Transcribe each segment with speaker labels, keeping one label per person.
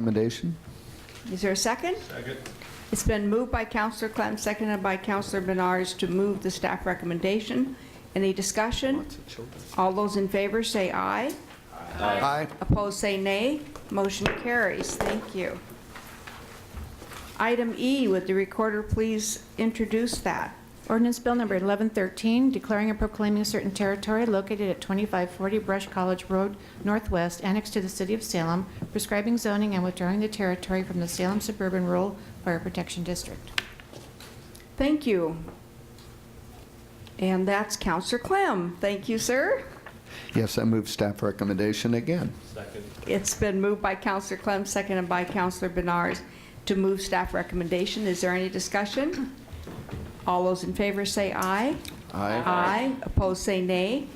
Speaker 1: Recommendation?
Speaker 2: Is there a second?
Speaker 3: Second.
Speaker 2: It's been moved by Counselor Clem, seconded by Counselor Benars to move the staff recommendation. Any discussion? All those in favor say aye.
Speaker 1: Aye.
Speaker 2: Opposed, say nay. Motion carries. Thank you. Item E, would the recorder please introduce that?
Speaker 4: Ordinance Bill Number 1113, declaring and proclaiming certain territory located at 2540 Brush College Road Northwest, annexed to the city of Salem, prescribing zoning and withdrawing the territory from the Salem Suburban Rural Fire Protection District.
Speaker 2: Thank you. And that's Counselor Clem. Thank you, sir.
Speaker 1: Yes, I move staff recommendation again.
Speaker 3: Second.
Speaker 2: It's been moved by Counselor Clem, seconded by Counselor Benars to move staff recommendation. Is there any discussion? All those in favor say aye.
Speaker 1: Aye.
Speaker 2: Aye. Opposed, say nay.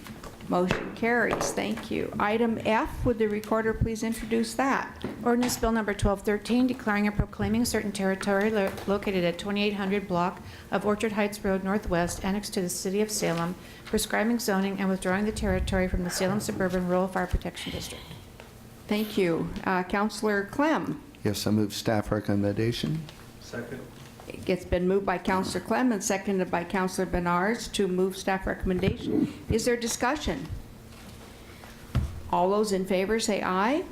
Speaker 2: Motion carries. Thank you. Item F, would the recorder please introduce that?
Speaker 4: Ordinance Bill Number 1213, declaring and proclaiming certain territory lo- located at 2800 block of Orchard Heights Road Northwest, annexed to the city of Salem, prescribing zoning and withdrawing the territory from the Salem Suburban Rural Fire Protection District.
Speaker 2: Thank you. Uh, Counselor Clem.
Speaker 1: Yes, I move staff recommendation.
Speaker 3: Second.
Speaker 2: It's been moved by Counselor Clem and seconded by Counselor Benars to move staff recommendation. Is there discussion? All those in favor say aye.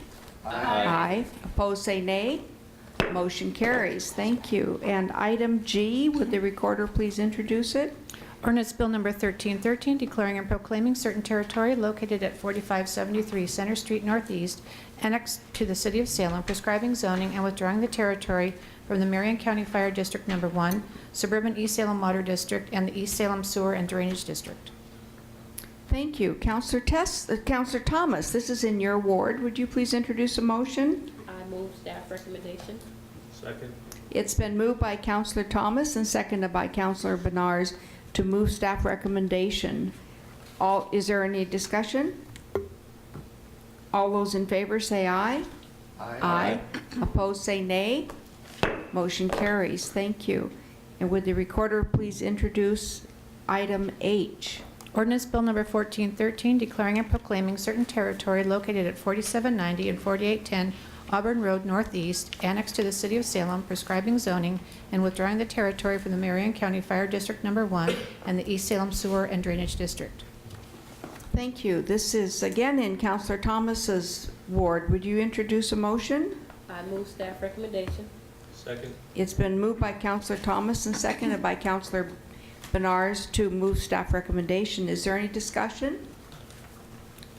Speaker 2: Aye. Opposed, say nay. Motion carries. Thank you. And item G, would the recorder please introduce it?
Speaker 4: Ordinance Bill Number 1313, declaring and proclaiming certain territory located at 4573 Center Street Northeast annexed to the City of Salem, prescribing zoning and withdrawing the territory from the Marion County Fire District Number 1, Suburban East Salem Water District, and the East Salem Sewer and Drainage District.
Speaker 2: Thank you. Counselor Tess, uh, Counselor Thomas, this is in your ward. Would you please introduce a motion?
Speaker 5: I move staff recommendation.
Speaker 3: Second.
Speaker 2: It's been moved by Counselor Thomas and seconded by Counselor Benars to move staff recommendation. All, is there any discussion? All those in favor say aye. Opposed, say nay. Motion carries. Thank you. And would the recorder please introduce item H?
Speaker 4: Ordinance Bill Number 1413, declaring and proclaiming certain territory located at 4790 and 4810 Auburn Road Northeast, annexed to the City of Salem, prescribing zoning and withdrawing the territory from the Marion County Fire District Number 1 and the East Salem Sewer and Drainage District.
Speaker 2: Thank you. This is again in Counselor Thomas's ward. Would you introduce a motion?
Speaker 5: I move staff recommendation.
Speaker 3: Second.
Speaker 2: It's been moved by Counselor Thomas and seconded by Counselor Benars to move staff recommendation. Is there any discussion?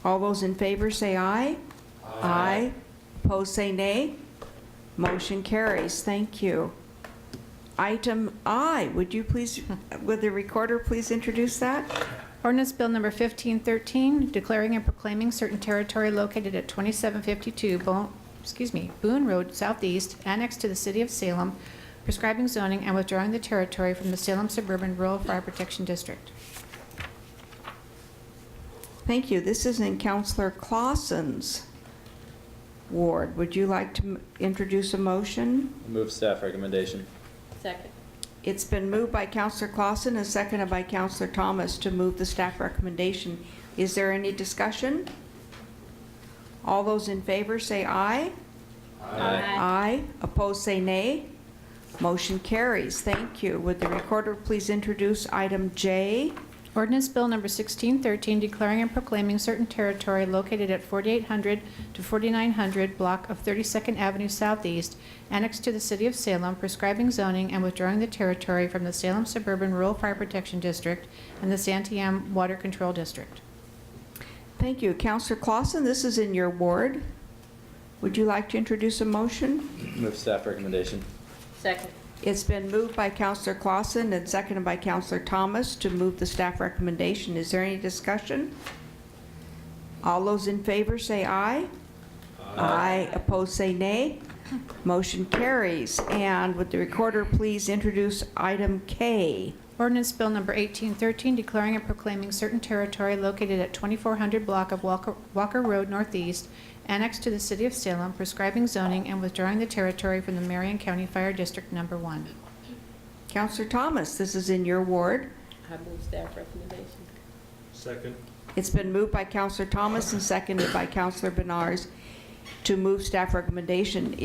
Speaker 2: All those in favor say aye. Aye. Opposed, say nay. Motion carries. Thank you. Item I, would you please, would the recorder please introduce that?
Speaker 4: Ordinance Bill Number 1513, declaring and proclaiming certain territory located at 2752 Bo- excuse me, Boone Road Southeast, annexed to the City of Salem, prescribing zoning and withdrawing the territory from the Salem Suburban Rural Fire Protection District.
Speaker 2: Thank you. This is in Counselor Clausen's ward. Would you like to m- introduce a motion?
Speaker 6: Move staff recommendation.
Speaker 5: Second.
Speaker 2: It's been moved by Counselor Clausen and seconded by Counselor Thomas to move the staff recommendation. Is there any discussion? All those in favor say aye. Aye. Opposed, say nay. Motion carries. Thank you. Would the recorder please introduce item J?
Speaker 4: Ordinance Bill Number 1613, declaring and proclaiming certain territory located at 4800 to 4900 block of 32nd Avenue Southeast, annexed to the City of Salem, prescribing zoning and withdrawing the territory from the Salem Suburban Rural Fire Protection District and the Santiam Water Control District.
Speaker 2: Thank you. Counselor Clausen, this is in your ward. Would you like to introduce a motion?
Speaker 6: Move staff recommendation.
Speaker 5: Second.
Speaker 2: It's been moved by Counselor Clausen and seconded by Counselor Thomas to move the staff recommendation. Is there any discussion? All those in favor say aye. Aye. Opposed, say nay. Motion carries. And would the recorder please introduce item K?
Speaker 4: Ordinance Bill Number 1813, declaring and proclaiming certain territory located at 2400 block of Walker Walker Road Northeast, annexed to the City of Salem, prescribing zoning and withdrawing the territory from the Marion County Fire District Number 1.
Speaker 2: Counselor Thomas, this is in your ward.
Speaker 5: I move staff recommendation.
Speaker 3: Second.
Speaker 2: It's been moved by Counselor Thomas and seconded by Counselor Benars to move staff recommendation.